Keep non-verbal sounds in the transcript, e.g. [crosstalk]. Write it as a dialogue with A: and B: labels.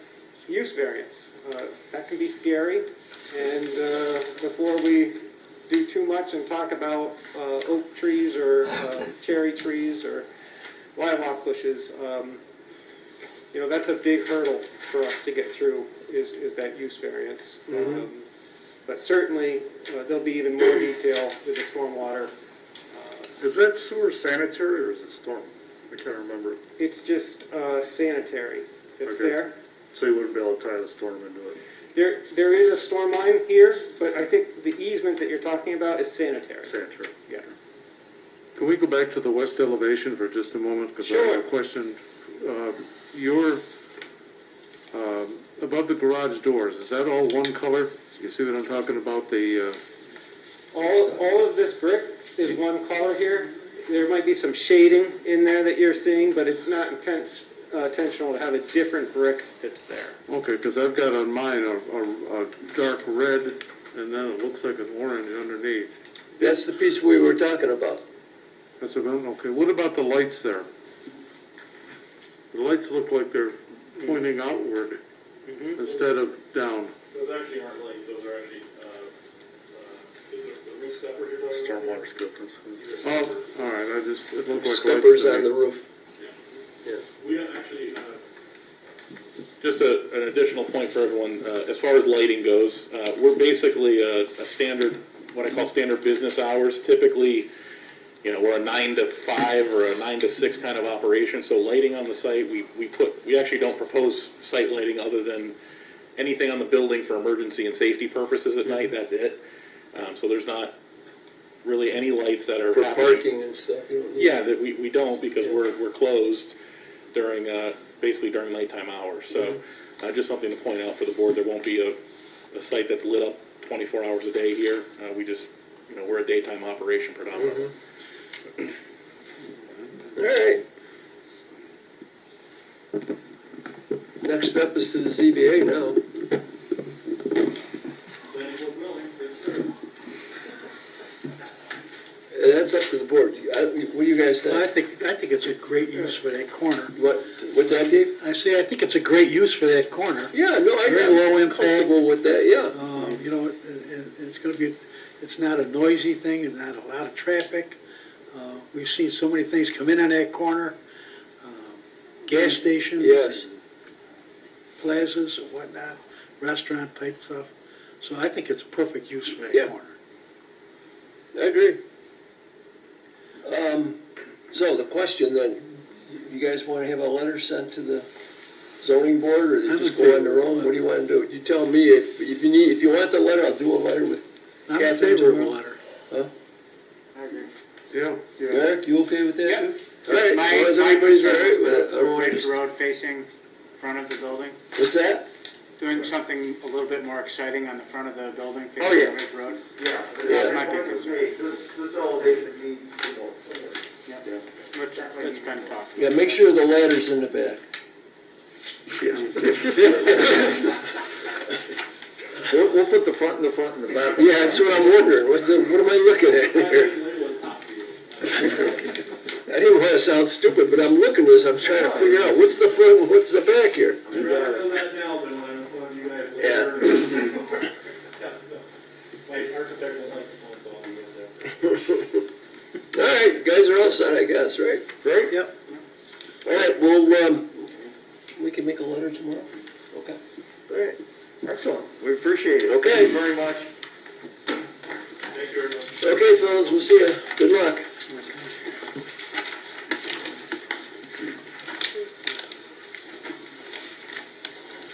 A: use variance. Uh, That can be scary, and uh, before we do too much and talk about uh, oak trees or uh, cherry trees or lilac bushes, um, you know, that's a big hurdle for us to get through, is, is that use variance. Um, But certainly, uh, there'll be even more detail with the stormwater.
B: Is that sewer sanitary or is it storm? I can't remember.
A: It's just uh, sanitary that's
B: Okay.
A: there.
B: So you wouldn't be able to tie the storm into it?
A: There, there is a storm line here, but I think the easement that you're talking about is sanitary.
B: Sanitary.
A: Yeah.
C: Can we go back to the west elevation for just a moment? Because I have
A: Sure.
C: a question. Uh, Your, um, above the garage doors, is that all one color? You see what I'm talking about, the, uh,
A: All, all of this brick is one color here. There might be some shading in there that you're seeing, but it's not intense, uh, intentional to have a different brick that's there.
C: okay, because I've got on mine a, a, a dark red, and then it looks like an orange underneath.
D: That's the piece we were talking about.
C: That's about, okay, what about the lights there? The lights look like they're pointing outward instead of down.
E: Those actually aren't lights, those are actually, uh, uh, is it the roof stepper you're talking about?
B: Stormwater scuppers.
C: Oh, all right, I just, it looked like lights to
D: Scuppers on
C: me.
D: the roof.
E: We don't actually, uh,
F: Just a, an additional point for everyone, uh, as far as lighting goes, uh, we're basically a, a standard, what I call standard business hours. Typically, you know, we're a nine to five or a nine to six kind of operation, so lighting on the site, we, we put, we actually don't propose site lighting other than anything on the building for emergency and safety purposes at
D: Mm-hmm.
F: night, that's it. Um, so there's not really any lights that are
D: For
F: happening.
D: parking and stuff. you don't need-
F: Yeah, that we, we don't because we're, we're closed during, uh, basically during nighttime hours. So, uh, just something to point out for the board, there won't be a, a site that's lit up twenty-four hours a day here. Uh, we just, you know, we're a daytime operation predominantly.
D: Mm-hmm. All right. Next step is to the ZBA now.
E: planning board building, for sure.
D: Uh, That's up to the board. You- I- What do you guys
G: Well, I
D: think?
G: think, I think it's a great use for that corner.
D: What, what's that, Dave?
G: I say, I think it's a great use for that corner.
D: Yeah, no, I-
G: Very low
D: I'm
G: impact.
D: comfortable with that, yeah.
G: Um, you know, it, it, it's gonna be, it's not a noisy thing and not a lot of traffic. Uh, we've seen so many things come in on that corner, um, gas stations.
D: Mm, Yes.
G: Plazas and whatnot, restaurant type stuff. So I think it's a perfect use for
D: Yeah.
G: that corner.
D: I agree. Um, so the question then, you guys wanna have a letter sent to the zoning board, or
G: I'm
D: they
G: in
D: just go on
G: favor
D: their
G: of a
D: own, what do
G: letter.
D: you wanna do? You tell me, if, if you need, if you want the letter, I'll do a letter with
G: I'm in
D: Catherine
G: favor of a
D: tomorrow.
G: letter.
A: I agree.
C: Yeah, yeah.
D: Eric, you okay with that
H: Yeah.
D: too? All right,
H: My-
D: as long as
H: my
D: everybody's all
H: concern
D: right
H: is
D: with it,
H: the
D: everyone
H: Ridge
D: just-
H: Road facing front of the building,
D: what's that?
H: doing something a little bit more exciting on the front of the building
D: Oh,
H: facing
D: yeah.
H: Ridge Road.
I: Yeah,
D: Yeah.
I: that might be considered. This, this elevation needs, you know,
H: Yeah. Which, it's been talked.
D: Yeah, make sure the ladder's in the back.
B: We'll, we'll put the front in the front and the back.
D: Uh, Yeah, that's what I'm wondering, what's the, what am I looking at here? [laughs] I didn't wanna sound stupid, but I'm looking at this, I'm trying to figure out, what's the front, and what's the back here?
E: I'd rather know that now than when I'm calling you guys later.
D: Yeah.
E: [laughs] My architect will like to phone call you guys after.
D: All right, you guys are all set, I guess, right?
B: Right?
G: Yep.
D: All right, well, um, we can make a letter tomorrow? Okay. All right.
B: Excellent. We appreciate it.
D: Okay.
B: Thank you very much.
D: Okay, fellas, we'll see ya. Good luck.